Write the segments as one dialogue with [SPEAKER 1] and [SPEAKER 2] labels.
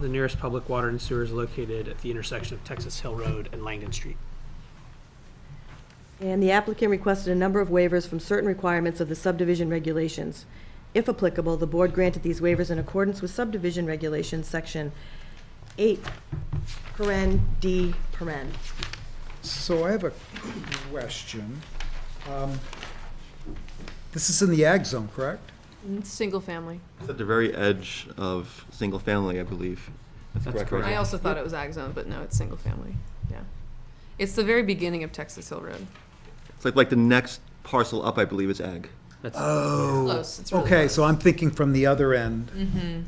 [SPEAKER 1] the nearest public water and sewer is located at the intersection of Texas Hill Road and Langdon Street.
[SPEAKER 2] And the applicant requested a number of waivers from certain requirements of the subdivision regulations. If applicable, the board granted these waivers in accordance with subdivision regulations, section 8, paren D, paren.
[SPEAKER 3] So I have a question. Um, This is in the ag zone, correct?
[SPEAKER 4] Single family.
[SPEAKER 5] It's at the very edge of single family, I believe. That's correct. right?
[SPEAKER 4] I also thought it was ag zone, but no, it's single family. Yeah. It's the very beginning of Texas Hill Road.
[SPEAKER 5] It's like, like the next parcel up, I believe, is ag.
[SPEAKER 3] Oh,
[SPEAKER 4] Close. It's really
[SPEAKER 3] okay,
[SPEAKER 4] close.
[SPEAKER 3] so I'm thinking from the other end,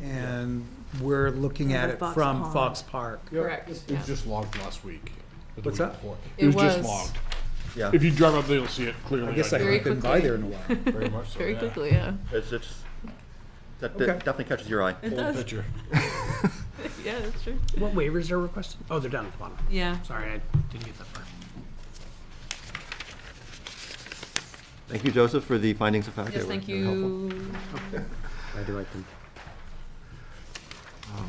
[SPEAKER 3] and we're looking at it
[SPEAKER 2] Fox
[SPEAKER 3] from
[SPEAKER 2] Pond.
[SPEAKER 3] Fox Park.
[SPEAKER 6] Yeah,
[SPEAKER 4] Correct,
[SPEAKER 6] It
[SPEAKER 4] yeah.
[SPEAKER 6] was just logged last week. or the
[SPEAKER 3] What's
[SPEAKER 6] week
[SPEAKER 3] that?
[SPEAKER 6] before.
[SPEAKER 4] It
[SPEAKER 6] It was just
[SPEAKER 4] was.
[SPEAKER 6] logged.
[SPEAKER 5] Yeah.
[SPEAKER 6] If you drive up there, you'll see it
[SPEAKER 3] I
[SPEAKER 6] clearly.
[SPEAKER 3] guess I
[SPEAKER 4] Very
[SPEAKER 3] haven't been by
[SPEAKER 4] quickly.
[SPEAKER 3] there in a while.
[SPEAKER 6] Very much so,
[SPEAKER 4] Very
[SPEAKER 6] yeah.
[SPEAKER 4] quickly, yeah.
[SPEAKER 5] It's, it's, that
[SPEAKER 3] Okay.
[SPEAKER 5] that definitely catches your eye.
[SPEAKER 4] It
[SPEAKER 6] Full
[SPEAKER 4] does.
[SPEAKER 6] picture.
[SPEAKER 4] Yeah, that's true.
[SPEAKER 1] What waivers are requested? Oh, they're down at the bottom.
[SPEAKER 4] Yeah.
[SPEAKER 1] Sorry, I didn't get that far.
[SPEAKER 5] Thank you, Joseph, for the findings of fact. They
[SPEAKER 4] Yes,
[SPEAKER 5] were
[SPEAKER 4] thank
[SPEAKER 5] very helpful.
[SPEAKER 4] you.
[SPEAKER 7] I direct them. Yeah,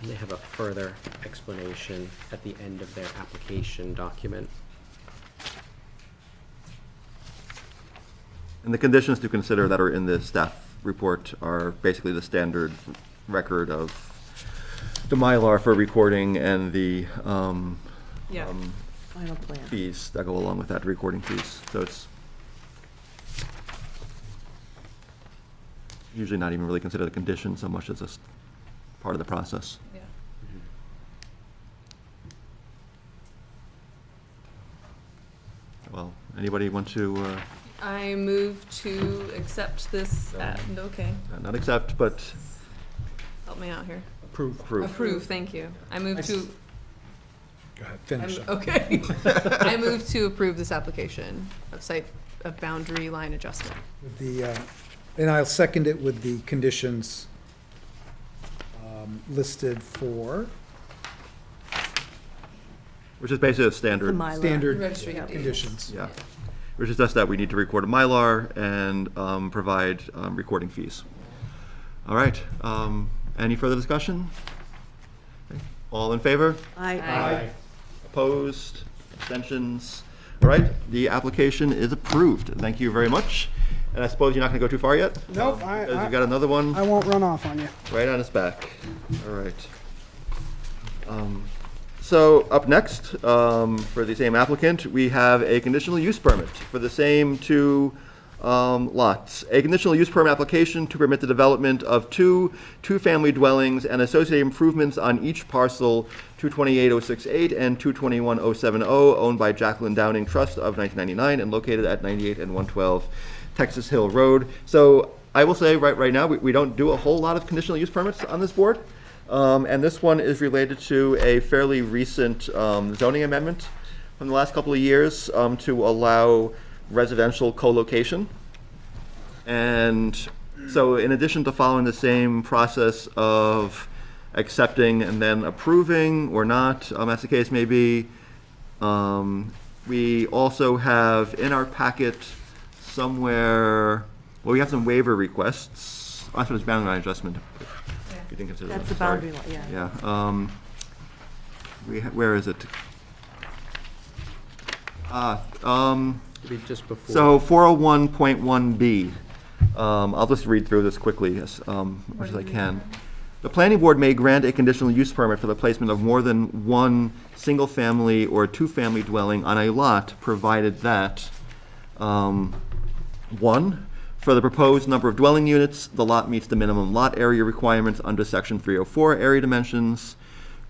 [SPEAKER 7] And they have a further explanation at the end of their application document.
[SPEAKER 5] And the conditions to consider that are in the staff report are basically the standard record of the Mylar for recording and the um,
[SPEAKER 4] Yeah.
[SPEAKER 5] um,
[SPEAKER 2] Final plan.
[SPEAKER 5] fees that go along with that, recording fees. So it's usually not even really considered a condition so much as a s- part of the process.
[SPEAKER 4] Yeah.
[SPEAKER 5] Mm-hmm. Well, anybody want to, uh,
[SPEAKER 4] I move to accept this, uh, okay,
[SPEAKER 5] not accept, but
[SPEAKER 4] help me out here.
[SPEAKER 3] Approve.
[SPEAKER 5] approve?
[SPEAKER 4] Approve, thank you. I move to,
[SPEAKER 3] Go ahead,
[SPEAKER 4] I'm-
[SPEAKER 3] finish. up.
[SPEAKER 4] okay. I move to approve this application of site, of boundary line adjustment.
[SPEAKER 3] With The, uh, and I'll second it with the conditions um, listed for
[SPEAKER 5] Which is basically a standard,
[SPEAKER 3] standard
[SPEAKER 4] Registry of deeds.
[SPEAKER 3] conditions.
[SPEAKER 5] yeah. Which is just that we need to record a Mylar and um, provide um, recording fees. All right, um, any further discussion? All in favor?
[SPEAKER 2] I,
[SPEAKER 4] Aye.
[SPEAKER 5] Opposed? Abstentions? All right, the application is approved. Thank you very much. And I suppose you're not going to go too far yet?
[SPEAKER 8] Nope, I,
[SPEAKER 5] Because you've
[SPEAKER 8] I,
[SPEAKER 5] got another one
[SPEAKER 8] I won't run off on you.
[SPEAKER 5] right on his back. All right. Um, So up next, um, for the same applicant, we have a conditional use permit for the same two um, lots. A conditional use permit application to permit the development of two two-family dwellings and associated improvements on each parcel 228068 and 221070, oh, owned by Jacqueline Downing Trust of 1999 and located at 98 and 112 Texas Hill Road. So I will say right, right now, we, we don't do a whole lot of conditional use permits on this board. Um, and this one is related to a fairly recent um, zoning amendment from the last couple of years um, to allow residential co-location. And so in addition to following the same process of accepting and then approving or not, um, as the case may be, um, we also have in our packet somewhere, well, we have some waiver requests. I thought it was boundary line adjustment. If you didn't consider
[SPEAKER 2] that's the
[SPEAKER 5] that, sorry.
[SPEAKER 2] boundary line, yeah.
[SPEAKER 5] Yeah, um, we, ha- where is it? Ah, um,
[SPEAKER 7] It'd be just before.
[SPEAKER 5] so 401.1B, um, I'll just read through this quickly as um, much as I can. The planning board may grant a conditional use permit for the placement of more than one single-family or two-family dwelling on a lot, provided that, um, one, for the proposed number of dwelling units, the lot meets the minimum lot area requirements under section 304 area dimensions.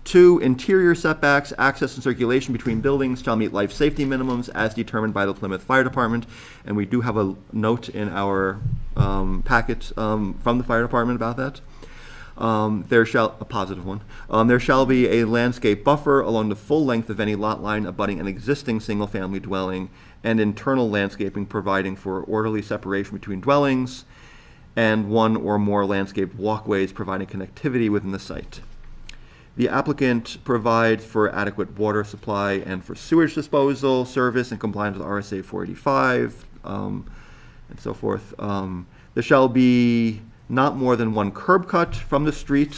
[SPEAKER 5] Two, interior setbacks, access and circulation between buildings shall meet life safety minimums as determined by the Plymouth Fire Department. And we do have a note in our um, packet um, from the fire department about that. Um, there shall, a positive one, um, there shall be a landscape buffer along the full length of any lot line abutting an existing single-family dwelling and internal landscaping providing for orderly separation between dwellings and one or more landscaped walkways providing connectivity within the site. The applicant provides for adequate water supply and for sewage disposal service in compliance with RSA 485, um, and so forth. Um, There shall be not more than one curb cut from the street